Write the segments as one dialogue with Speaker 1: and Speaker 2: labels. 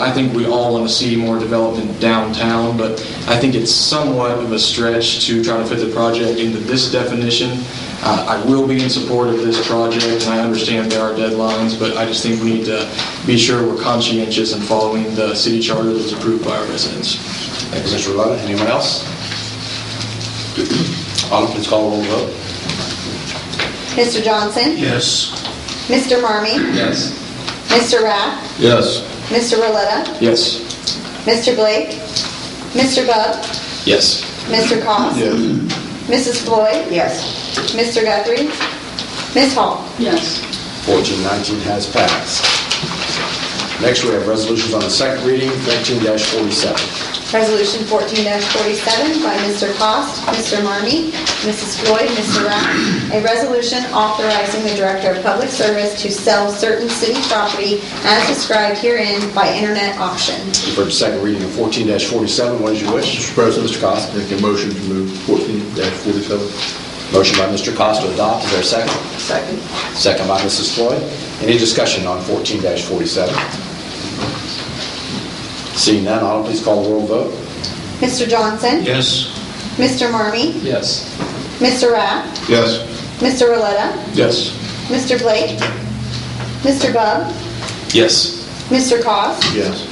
Speaker 1: I think we all want to see more development downtown, but I think it's somewhat of a stretch to try to fit the project into this definition. Uh, I will be in support of this project, and I understand there are deadlines, but I just think we need to be sure we're conscientious in following the city charter that was approved by our residents.
Speaker 2: Thank you, Mr. Roletta. Anyone else? Autumn, please call the roll vote.
Speaker 3: Mr. Johnson?
Speaker 4: Yes.
Speaker 3: Mr. Marmee?
Speaker 2: Yes.
Speaker 3: Mr. Raff?
Speaker 2: Yes.
Speaker 3: Mr. Roletta?
Speaker 1: Yes?
Speaker 3: Mr. Blake? Mr. Bub?
Speaker 2: Yes.
Speaker 3: Mr. Cos? Mrs. Floyd?
Speaker 5: Yes.
Speaker 3: Mr. Guthrie? Ms. Hall?
Speaker 5: Yes.
Speaker 2: 1419 has passed. Next, we have resolutions on the second reading, 13-47.
Speaker 3: Resolution 14-47 by Mr. Cost, Mr. Marmee, Mrs. Floyd, Mr. Raff. A resolution authorizing the Director of Public Service to sell certain city property as described herein by internet auction.
Speaker 2: You've heard the second reading of 14-47. What is your wish?
Speaker 6: Mr. President,
Speaker 2: Mr. Costa.
Speaker 6: make a motion to move 14-47.
Speaker 2: Motion by Mr. Costa to adopt. Is there a second?
Speaker 5: Second.
Speaker 2: Second by Mrs. Floyd. Any discussion on 14-47? Seeing none, Autumn, please call the roll vote.
Speaker 3: Mr. Johnson?
Speaker 4: Yes.
Speaker 3: Mr. Marmee?
Speaker 2: Yes.
Speaker 3: Mr. Raff?
Speaker 6: Yes.
Speaker 3: Mr. Roletta?
Speaker 1: Yes.
Speaker 3: Mr. Blake? Mr. Bub?
Speaker 1: Yes.
Speaker 3: Mr. Cos?
Speaker 6: Yes.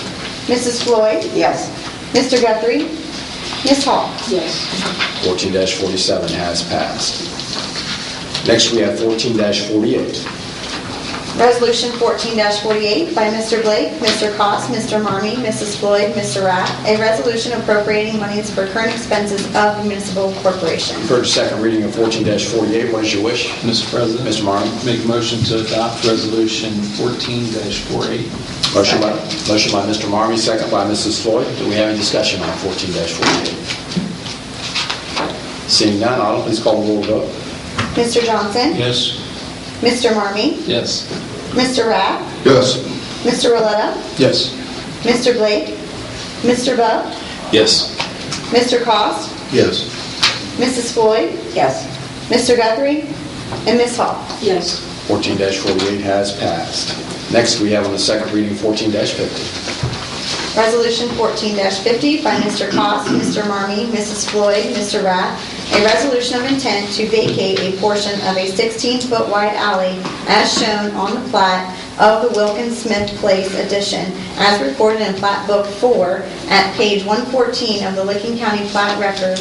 Speaker 3: Mrs. Floyd?
Speaker 5: Yes.
Speaker 3: Mr. Guthrie? Ms. Hall?
Speaker 5: Yes.
Speaker 2: 14-47 has passed. Next, we have 14-48.
Speaker 3: Resolution 14-48 by Mr. Blake, Mr. Cos, Mr. Marmee, Mrs. Floyd, Mr. Raff. A resolution appropriating monies for current expenses of the municipal corporation.
Speaker 2: You've heard the second reading of 14-48. What is your wish?
Speaker 7: Mr. President.
Speaker 2: Mr. Marmee.
Speaker 7: Make a motion to adopt Resolution 14-48.
Speaker 2: Motion by, motion by Mr. Marmee, second by Mrs. Floyd. Do we have any discussion on 14-48? Seeing none, Autumn, please call the roll vote.
Speaker 3: Mr. Johnson?
Speaker 4: Yes.
Speaker 3: Mr. Marmee?
Speaker 7: Yes.
Speaker 3: Mr. Raff?
Speaker 6: Yes.
Speaker 3: Mr. Roletta?
Speaker 1: Yes.
Speaker 3: Mr. Blake? Mr. Bub?
Speaker 1: Yes.
Speaker 3: Mr. Cos?
Speaker 6: Yes.
Speaker 3: Mrs. Floyd?
Speaker 5: Yes.
Speaker 3: Mr. Guthrie? And Ms. Hall?
Speaker 5: Yes.
Speaker 2: 14-48 has passed. Next, we have on the second reading 14-50.
Speaker 3: Resolution 14-50 by Mr. Cos, Mr. Marmee, Mrs. Floyd, Mr. Rath, a resolution of intent to vacate a portion of a 16-foot wide alley as shown on the plat of the Wilkins Smith Place addition as recorded in Plat Book 4 at page 114 of the Licking County Plat Records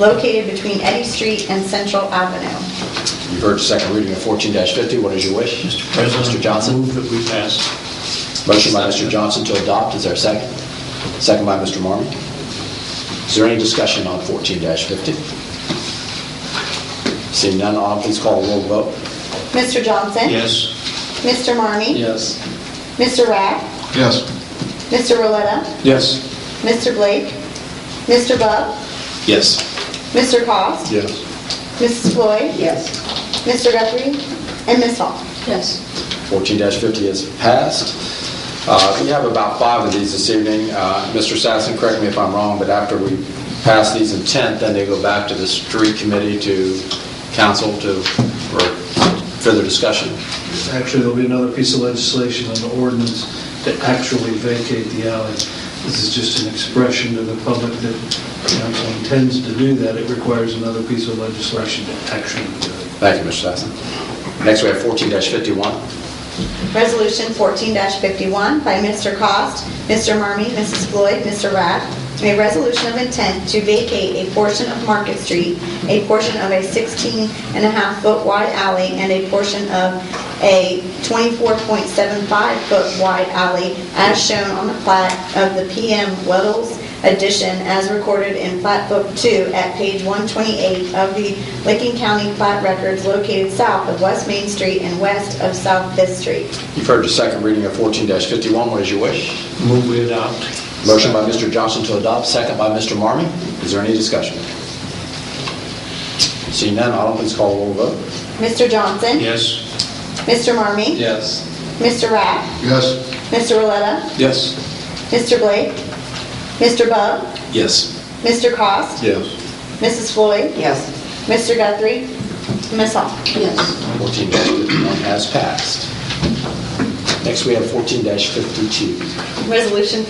Speaker 3: located between Eddy Street and Central Avenue.
Speaker 2: You've heard the second reading of 14-50. What is your wish?
Speaker 4: Mr. President.
Speaker 2: Mr. Johnson?
Speaker 4: Move that we pass.
Speaker 2: Motion by Mr. Johnson to adopt, is there a second? Second by Mr. Marmee. Is there any discussion on 14-50? Seeing none, Autumn, please call the roll vote.
Speaker 3: Mr. Johnson?
Speaker 4: Yes.
Speaker 3: Mr. Marmee?
Speaker 7: Yes.
Speaker 3: Mr. Rath?
Speaker 6: Yes.
Speaker 3: Mr. Roletta?
Speaker 1: Yes.
Speaker 3: Mr. Blake? Mr. Bub?
Speaker 1: Yes.
Speaker 3: Mr. Cost?
Speaker 6: Yes.
Speaker 3: Mrs. Floyd?
Speaker 5: Yes.
Speaker 3: Mr. Guthrie? And Ms. Hall?
Speaker 5: Yes.
Speaker 2: 14-50 is passed. Uh, We have about five of these this evening. Uh, Mr. Sassen, correct me if I'm wrong, but after we pass these in 10th, then they go back to the street committee to council to, for further discussion.
Speaker 8: Actually, there'll be another piece of legislation on the ordinance to actually vacate the alley. This is just an expression to the public that council intends to do that. It requires another piece of legislation to actually do it.
Speaker 2: Thank you, Mr. Sassen. Next, we have 14-51.
Speaker 3: Resolution 14-51 by Mr. Cost, Mr. Marmee, Mrs. Floyd, Mr. Rath. A resolution of intent to vacate a portion of Market Street, a portion of a 16 and a half foot wide alley, and a portion of a 24.75 foot wide alley as shown on the plat of the PM Weddles addition as recorded in Plat Book 2 at page 128 of the Licking County Plat Records located south of West Main Street and west of South Fifth Street.
Speaker 2: You've heard the second reading of 14-51. What is your wish?
Speaker 4: Move we adopt.
Speaker 2: Motion by Mr. Johnson to adopt, second by Mr. Marmee. Is there any discussion? Seeing none, Autumn, please call the roll vote.
Speaker 3: Mr. Johnson?
Speaker 4: Yes.
Speaker 3: Mr. Marmee?
Speaker 7: Yes.
Speaker 3: Mr. Raff?
Speaker 6: Yes.
Speaker 3: Mr. Roletta?
Speaker 1: Yes.
Speaker 3: Mr. Blake? Mr. Bub?
Speaker 1: Yes.
Speaker 3: Mr. Cost?
Speaker 6: Yes.
Speaker 3: Mrs. Floyd?
Speaker 5: Yes.
Speaker 3: Mr. Guthrie? Ms. Hall?
Speaker 5: Yes.
Speaker 2: 14-51 has passed. Next, we have 14-52.
Speaker 3: Resolution